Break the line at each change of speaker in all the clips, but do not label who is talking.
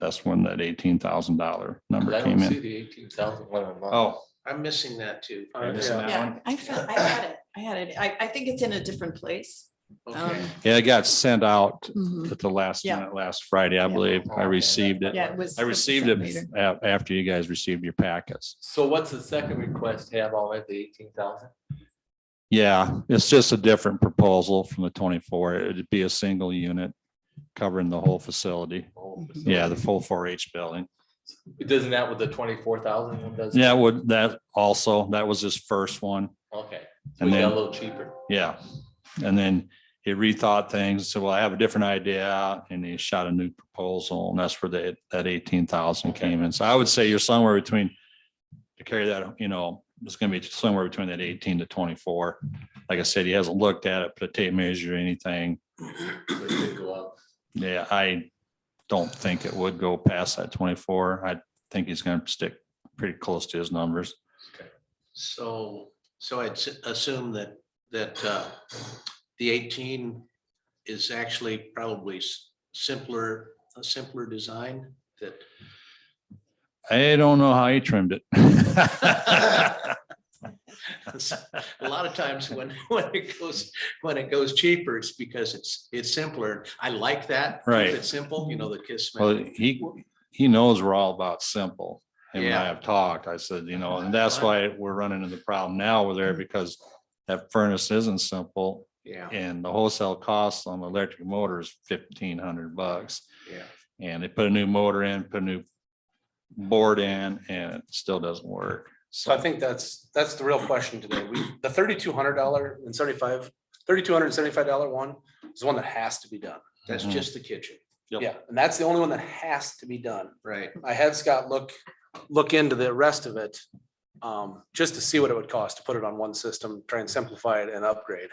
That's when that eighteen thousand dollar number
I
came
don't see
in.
the eighteen thousand one on mine.
Oh,
I'm missing that too.
You're missing that
Yeah,
one?
I found, I had it, I had it. I, I think it's in a different place.
Okay.
Um,
yeah, it got sent out
mhm.
at the last
Yeah.
minute, last Friday, I
Yeah.
believe.
Oh,
I received it.
Yeah, it was.
I received
sent
it
later.
a- after you guys received your packets.
So what's the second request have already, the eighteen thousand?
Yeah, it's just a different proposal from the twenty-four. It'd be a single unit covering the whole facility.
Oh,
Yeah, the full four H building.
Doesn't that with the twenty-four thousand one does?
Yeah, would that also, that was his first one.
Okay, so
And
we got a
then,
little cheaper.
yeah. And then he rethought things, said, well, I have a different idea, and he shot a new proposal, and that's where that, that eighteen thousand
Okay.
came in. So I would say you're somewhere between to carry that, you know, it's gonna be somewhere between that eighteen to twenty-four. Like I said, he hasn't looked at it, put a tape measure or anything.
so it could go up.
Yeah, I don't think it would go past that twenty-four. I think he's gonna stick pretty close to his numbers.
So, so I'd s- assume that, that uh, the eighteen is actually probably s- simpler, a simpler design that.
I don't know how he trimmed it.
A lot of times when, when it goes, when it goes cheaper, it's because it's, it's simpler. I like that. Keep
Right.
It's simple, you know, the kiss.
Well,
method.
he, he knows we're all about simple. And when I
Yeah.
have talked, I said, you know, and that's why we're running into the problem now. We're
Mm-hmm.
there because that furnace isn't simple
Yeah,
and the wholesale cost on the electric motor is fifteen hundred bucks.
yeah.
And they put a new motor in, put a new board in and it still doesn't work.
So I think that's, that's the real question today. We, the thirty-two hundred dollar and seventy-five, thirty-two hundred and seventy-five dollar one is one that has to be done.
That's
Mhm.
just the kitchen,
Yep.
Yeah, and that's the only one that has to be done.
right?
I had Scott look, look into the rest of it, um, just to see what it would cost to put it on one system, try and simplify it and upgrade.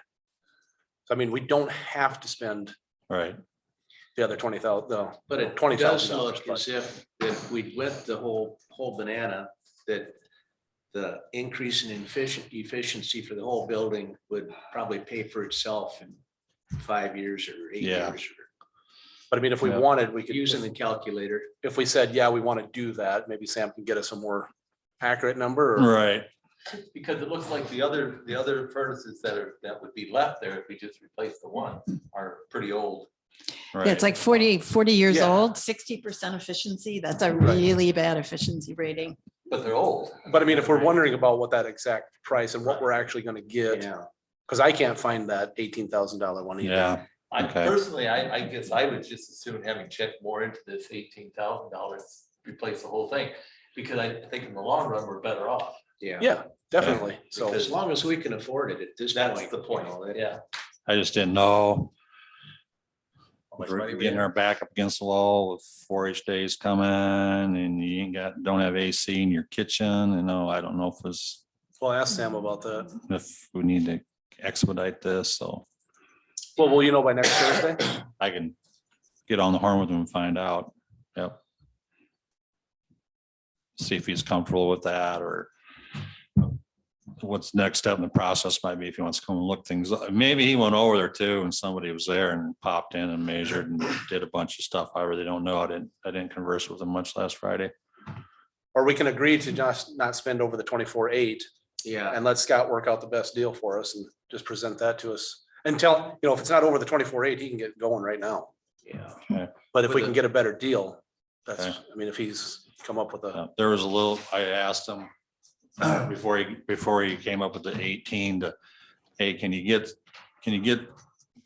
So I mean, we don't have to spend
Right.
the other twenty thousand, though.
But it
Twenty
does
thousand dollars,
look
but-
as Oh, if, if we went the whole, whole banana, that the increase in efficient, efficiency for the whole building would probably pay for itself in five years or eight
Yeah.
years.
But I mean, if we
Yeah.
wanted, we
or
could.
Using the calculator,
If we said, yeah, we want to do that, maybe Sam can get us a more accurate number or.
Right.
Because it looks like the other, the other furnaces that are, that would be left there if we just replace the one are pretty old.
Right.
Yeah, it's like 40 40 years
Yeah.
old, sixty percent efficiency. That's a
Right.
really bad efficiency rating.
But they're old.
But I mean, if we're wondering about what that exact price and what we're actually gonna get,
yeah,
because I can't find that eighteen thousand dollar one either.
Yeah.
I
Okay.
personally, I, I guess I would just assume having checked more into this eighteen thousand dollars, replace the whole thing. Because I think in the long run, we're better off.
yeah.
Yeah, definitely. So,
As long as we can afford it at this point.
That's the point,
you know, that-
yeah.
I just didn't know.
How much money
We're
we
Getting our back up against the wall with four H days coming and you ain't got, don't have AC in your kitchen. And no, I don't know if it's,
we'll ask Sam about that.
if we need to expedite this. So
Well, will you know by next Thursday?
I can get on the horn with him and find out. Yep. See if he's comfortable with that or what's next step in the process might be if he wants to come and look things. up. Maybe he went over there too and somebody was there and popped in and measured and did a bunch of stuff. I really don't know. I didn't, I didn't converse with him much last Friday.
Or we can agree to just not spend over the twenty-four eight
Yeah,
and let Scott work out the best deal for us and just present that to us. And tell, you know, if it's not over the twenty-four eight, he can get going right now.
yeah.
But if we
With
can
it.
get a better deal, that's, I mean, if he's come up with a,
Uh, There was a little, I asked him before he, before he came up with the eighteen to, hey, can you get, can you get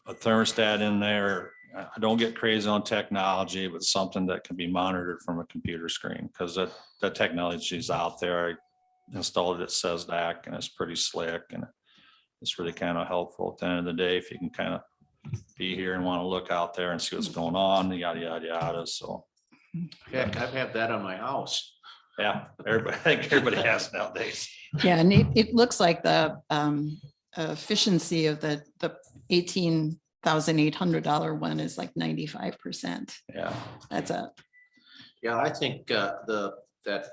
a thermostat in there? I I don't get crazy on technology, but something that can be monitored from a computer screen, because that, that technology is out there. I Installed it at SESDAC and it's pretty slick and it's really kind of helpful at the end of the day if you can kind of be here and want to look out there and see what's going on, yada, yada, yada. So,
Heck, I've had that on my house.
yeah, everybody, I think everybody has nowadays.
Yeah, and it, it looks like the um, efficiency of the, the eighteen thousand eight hundred dollar one is like ninety-five percent.
Yeah.
That's a,
Yeah, I think uh, the, that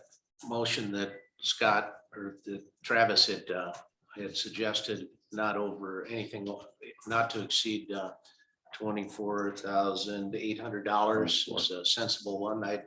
motion that Scott or that Travis had, uh, had suggested, not over anything, not to exceed uh, twenty-four thousand eight hundred dollars is a sensible one. I,